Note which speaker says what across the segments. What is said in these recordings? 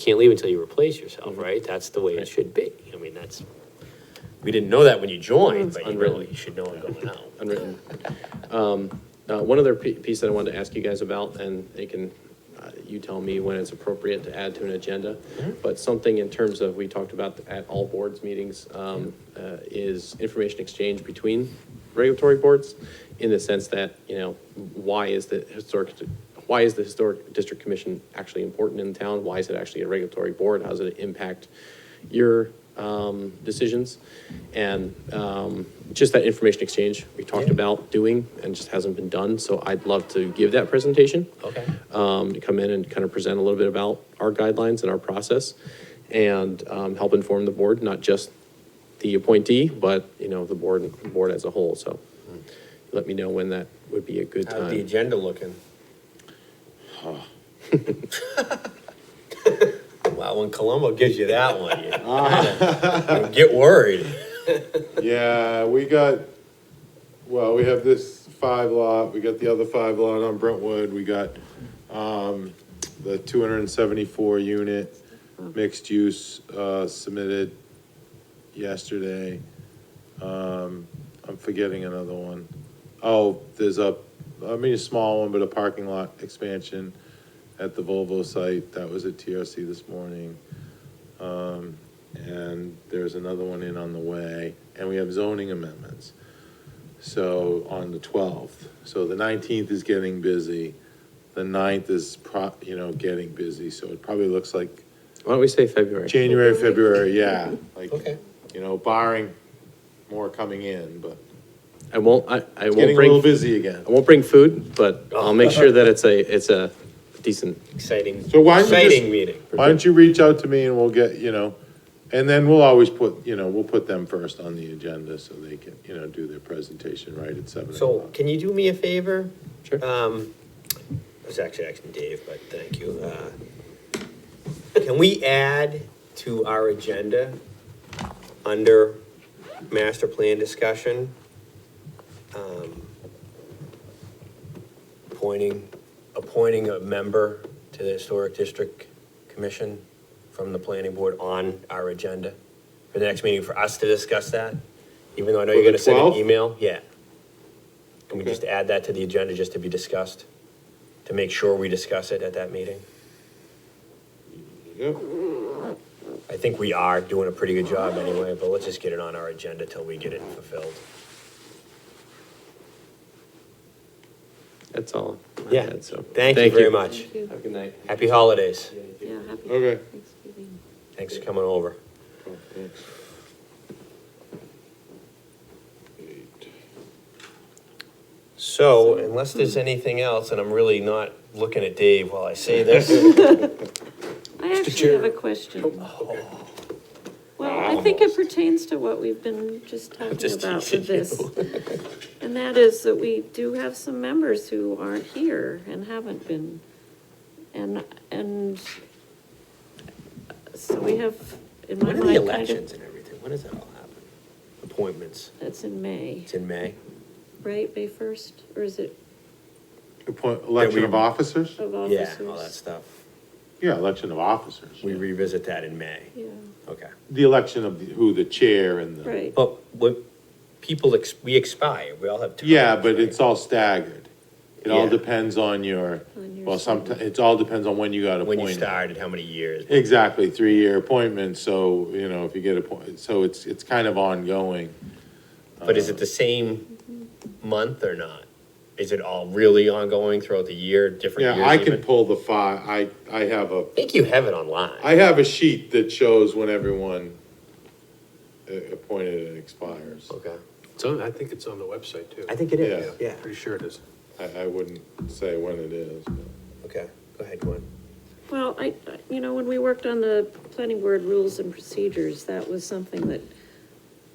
Speaker 1: can't leave until you replace yourself, Mm-hmm. right? That's the way it
Speaker 2: Right.
Speaker 1: should be. I mean, that's, we didn't know that when you joined, but you really should know it going out.
Speaker 2: unwritten. Um, uh, One other pi- piece that I wanted to ask you guys about, and it can, uh, you tell me when it's appropriate to add to an agenda, but something in terms of, we talked about at all boards meetings, um, uh, is information exchange between regulatory boards in the sense that, you know, why is the historic, why is the Historic District Commission actually important in town? Why is it actually a regulatory board? How does it impact your um, decisions? And um, just that information exchange we talked about doing and just hasn't been done. So I'd love to give that presentation
Speaker 1: Okay.
Speaker 2: um, to come in and kind of present a little bit about our guidelines and our process and um, help inform the board, not just the appointee, but, you know, the board, the board as a whole. So let me know when that would be a good
Speaker 1: How's the
Speaker 2: time.
Speaker 1: agenda looking? Well, when Colombo gives you that one, you
Speaker 3: Ah.
Speaker 1: kinda- you get worried.
Speaker 3: Yeah, we got, well, we have this five lot, we got the other five lot on Brentwood, we got, um, the two hundred and seventy-four unit mixed use, uh, submitted yesterday. Um, I'm forgetting another one. Oh, there's a, I mean, a small one, but a parking lot expansion at the Volvo site, that was at TRC this morning. Um, and there's another one in on the way, and we have zoning amendments. So on the twelfth, so the nineteenth is getting busy, the 9th is pro, you know, getting busy, so it probably looks like
Speaker 2: Why don't we say February?
Speaker 3: January, February, yeah, like,
Speaker 1: Okay.
Speaker 3: you know, barring more coming in, but
Speaker 2: I won't, I, I
Speaker 3: it's
Speaker 2: won't
Speaker 3: getting a little
Speaker 2: bring,
Speaker 3: busy Oh. again.
Speaker 2: I won't bring food, but I'll make sure that it's a, it's a decent
Speaker 1: Exciting,
Speaker 3: So why don't you just-
Speaker 1: exciting meeting.
Speaker 3: Why don't you reach out to me and we'll get, you know, and then we'll always put, you know, we'll put them first on the agenda so they can, you know, do their presentation right at seven
Speaker 1: So
Speaker 3: o'clock.
Speaker 1: can you do me a favor?
Speaker 2: Sure.
Speaker 1: Um, it was actually asking Dave, but thank you. Uh, Can we add to our agenda, under master plan discussion, um, appointing, appointing a member to the Historic District Commission from the planning board on our agenda for the next meeting for us to discuss that? Even though I know
Speaker 3: For
Speaker 1: you're
Speaker 3: the
Speaker 1: gonna send an
Speaker 3: 12th?
Speaker 1: email, yeah. Can we
Speaker 3: Okay.
Speaker 1: just add that to the agenda just to be discussed? To make sure we discuss it at that meeting?
Speaker 3: Yep.
Speaker 1: I think we are doing a pretty good job anyway, but let's just get it on our agenda till we get it fulfilled.
Speaker 2: That's all I
Speaker 1: Yeah.
Speaker 2: had, so.
Speaker 1: Thank you very much.
Speaker 4: Thank you.
Speaker 2: Have a good night.
Speaker 1: Happy holidays.
Speaker 4: Yeah, happy
Speaker 3: Okay.
Speaker 4: Thanksgiving.
Speaker 1: Thanks for coming over.
Speaker 3: Cool, thanks. Eight.
Speaker 1: So unless there's anything else, and I'm really not looking at Dave while I say this.
Speaker 4: I actually
Speaker 1: Chair.
Speaker 4: have a
Speaker 1: Oh,
Speaker 4: question. Well, I think it pertains to what we've been just talking
Speaker 1: just
Speaker 4: about
Speaker 1: teasing
Speaker 4: with this. And that is that we do have some members who aren't here and haven't been. And, and so we have, in my
Speaker 1: When are the
Speaker 4: mind, kind of,
Speaker 1: elections and everything? When does that all happen? Appointments.
Speaker 4: that's in May,
Speaker 1: It's in May.
Speaker 4: right, May first, or is it
Speaker 3: Appoint, election of officers?
Speaker 4: of
Speaker 1: Yeah,
Speaker 4: officers?
Speaker 1: all that stuff.
Speaker 3: Yeah, election of officers.
Speaker 1: We revisit that in May.
Speaker 4: Yeah,
Speaker 1: Okay.
Speaker 3: The election of the- who the chair and the.
Speaker 4: right,
Speaker 1: But what, people, ex- we expire. We all have terms.
Speaker 3: Yeah, but
Speaker 1: right?
Speaker 3: it's all staggered. It all
Speaker 1: Yeah.
Speaker 3: depends on your,
Speaker 4: On your
Speaker 3: well, sometimes
Speaker 4: start.
Speaker 3: it all depends on when you got
Speaker 1: When
Speaker 3: appointed.
Speaker 1: you started, how many years?
Speaker 3: Exactly, three-year appointment, so, you know, if you get appointed, so it's, it's kind of ongoing.
Speaker 1: But is it the same month or not? Is it all really ongoing throughout the year, different years?
Speaker 3: Yeah, I can
Speaker 1: even?
Speaker 3: pull the file, I, I have a,
Speaker 1: I think you have it online.
Speaker 3: I have a sheet that shows when everyone uh, appointed and expires.
Speaker 1: Okay.
Speaker 5: It's on, I think it's on the website too.
Speaker 1: I think it is,
Speaker 3: Yeah.
Speaker 1: yeah.
Speaker 5: Pretty sure it is.
Speaker 3: I, I wouldn't say when it is, but.
Speaker 1: Okay, go ahead, Gwen.
Speaker 4: Well, I, I- you know, when we worked on the planning board rules and procedures, that was something that,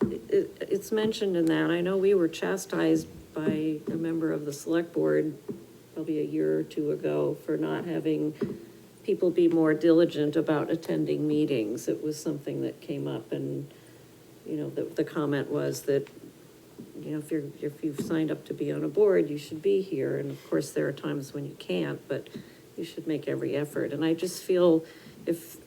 Speaker 4: it, it's mentioned in that. I know we were chastised by a member of the select board probably a year or two ago for not having people be more diligent about attending meetings. It was something that came up and, you know, the, the comment was that, you know, if you're, if you've signed up to be on a board, you should be here. And of course, there are times when you can't, but you should make every effort. And I just feel if